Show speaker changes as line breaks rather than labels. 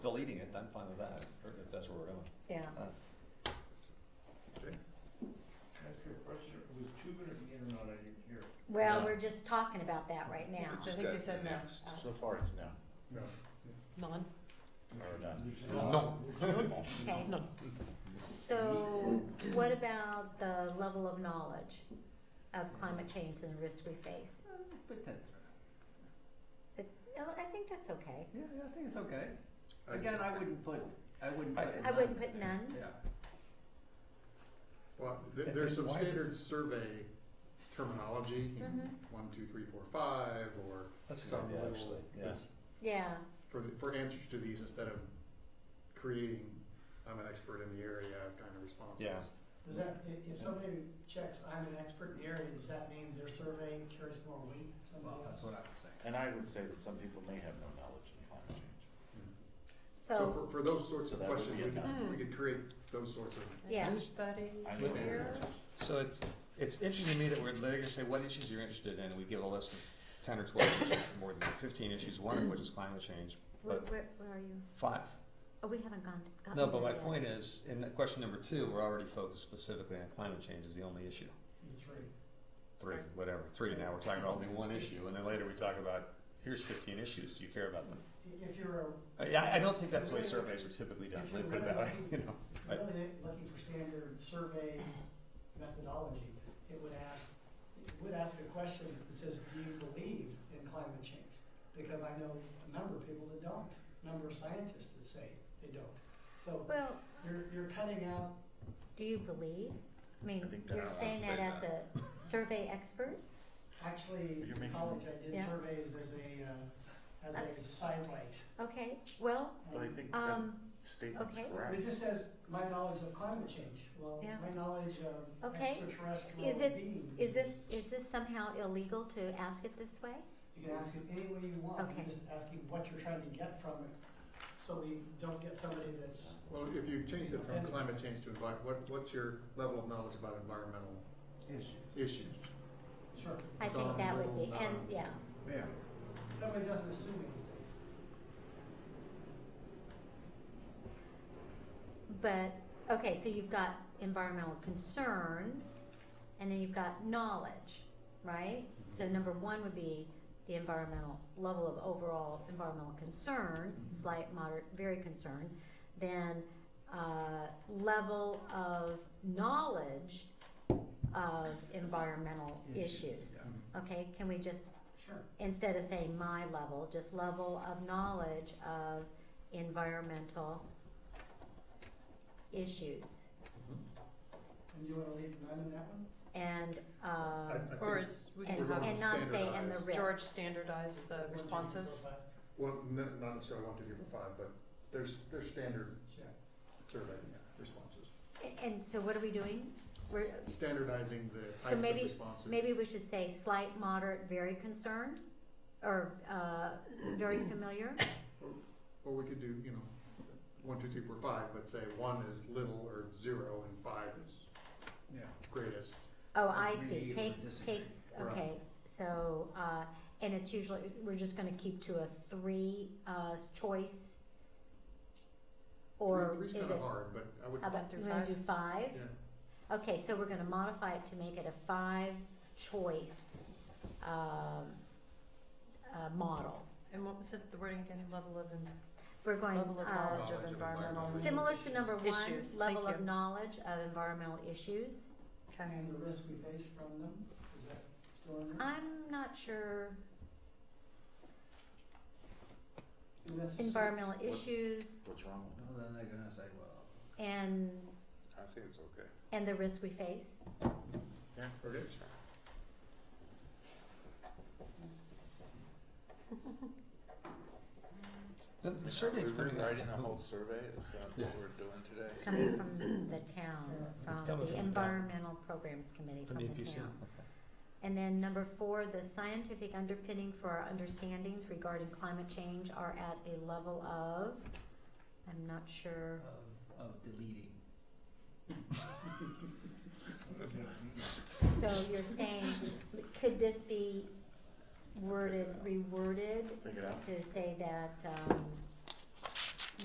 deleting it, I'm fine with that, if that's where we're going.
Yeah,
Uh,
Ask you a question, it was two minute meter or not, I didn't hear.
well,
No.
we're just talking about that right now.
I think they said no.
Uh,
So far, it's no.
No.
None.
Or none.
There's
No.
Okay,
None.
so what about the level of knowledge of climate change and the risks we face? No, I think that's okay.
Yeah, yeah, I think it's okay. Again, I wouldn't put, I wouldn't
I-
put. it
I
in
wouldn't put none.
the- Yeah.
Well, th- there's some standard survey terminology, you know,
Mm-hmm.
one, two, three, four, five, or
That's a good
some
idea,
little,
actually, yeah.
this-
Yeah,
for, for answers to these instead of creating, I'm an expert in the area kind of responses.
Yeah.
Does that, if, if somebody checks, I'm an expert in the area, does that mean their survey carries more weight than somebody
Well,
else?
that's what I would say.
And I would say that some people may have no knowledge in climate change.
so,
Mm. So for, for those sorts
So
of
that would
questions,
be
we
a no.
could, we could create those sorts of
Yeah.
Anybody
I know
here?
that.
So it's, it's interesting to me that we're, they're gonna say what issues you're interested in, and we give a list of ten or twelve issues, or more than that, fifteen issues, one of which is climate change,
where,
but
where, where are you?
five.
Oh, we haven't gone, gotten
No, but
there
my
yet.
point is, in that question number two, we're already focused specifically on climate change is the only issue.
In three.
Three, whatever, three now, we're talking about only one issue, and then later we talk about, here's fifteen issues, do you care about them?
I- If you're, a-
Uh, Yeah, I- I don't think that's the way surveys are typically done,
If
let
you're
me put it that way, you
really-
know.
if
Right.
you're really looking for standard survey methodology, it would ask, it would ask a question that says, do you believe in climate change? Because I know a number of people that don't, a number of scientists that say they don't. So
Well,
you're, you're cutting out,
do you believe? I mean,
I think
you're
that- I
saying
wanna
that
say
as a survey expert?
actually,
You're
in
making-
college, I did
Yeah.
surveys as a, uh, as a sidelight.
Okay, well,
But I think that
um,
statement's
okay.
correct.
It just says my knowledge of climate change. Well,
Yeah.
my knowledge of
Okay.
extraterrestrial
Is it-
beings.
is this, is this somehow illegal to ask it this way?
You can ask it any way you want.
Okay.
You're just asking what you're trying to get from it, so we don't get somebody that's.
Well, if you change it from
Okay.
climate change to envi- what, what's your level of knowledge about environmental
Issues.
issues?
Sure.
I think that would be, and, yeah,
Yeah.
That way it doesn't assume anything.
but, okay, so you've got environmental concern, and then you've got knowledge, right? So number one would be the environmental, level of overall environmental concern, slight, moderate, very concerned. Then, uh, level of knowledge of environmental issues.
Mm.
yeah.
Okay, can we just
Sure.
instead of saying my level, just level of knowledge of environmental issues.
Mm-hmm.
And you wanna leave none in that one?
And,
I-
uh,
I think
Or is, would
and,
you
we're
and
have
not say and the
standardized.
risks.
George standardize the
One, two, three,
responses?
four, five.
Well, n- not necessarily one, two, three, four, five, but there's, there's standard
Sure.
survey responses.
A- And so what are we doing? We're,
Standardizing the
So
types
maybe-
of responses.
maybe we should say slight, moderate, very concerned, or, uh, very familiar,
Or we could do, you know, one, two, three, four, five, but say one is little or zero and five is
Yeah.
greatest.
oh, I see,
Agree or
take,
disagree.
take, okay,
um,
so, uh, and it's usually, we're just gonna keep to a three, uh, choice? Or
Three-
is
Three's
it?
kind of hard, but I would,
How about,
Through
you wanna
five?
do five?
yeah.
Okay, so we're gonna modify it to make it a five-choice, um, uh, model.
And what was it, the wording again, level of, en-
We're going,
level of
uh,
knowledge
Knowledge
of
of
environmental?
environmental
similar to number one,
Issues,
level
thank
of
you.
knowledge of environmental issues.
Okay,
And the risk we face from them, is that still in
Mm-hmm.
there?
I'm not sure,
And that's a-
environmental issues
What's wrong with
Well, then they're gonna say, well,
and,
that? I think it's okay.
and the risks we face.
Yeah,
Okay.
The, the survey's coming out.
Rewriting the whole survey is that
Yeah.
what we're doing today?
It's coming from the town,
It's coming
from
from the
the
town.
Environmental Programs Committee,
From
from
the
the
EPC,
town.
okay.
And then number four, the scientific underpinning for our understandings regarding climate change are at a level of, I'm not sure.
of, of deleting.
So you're saying, could this be worded, reworded
Take it out.
to say that, um,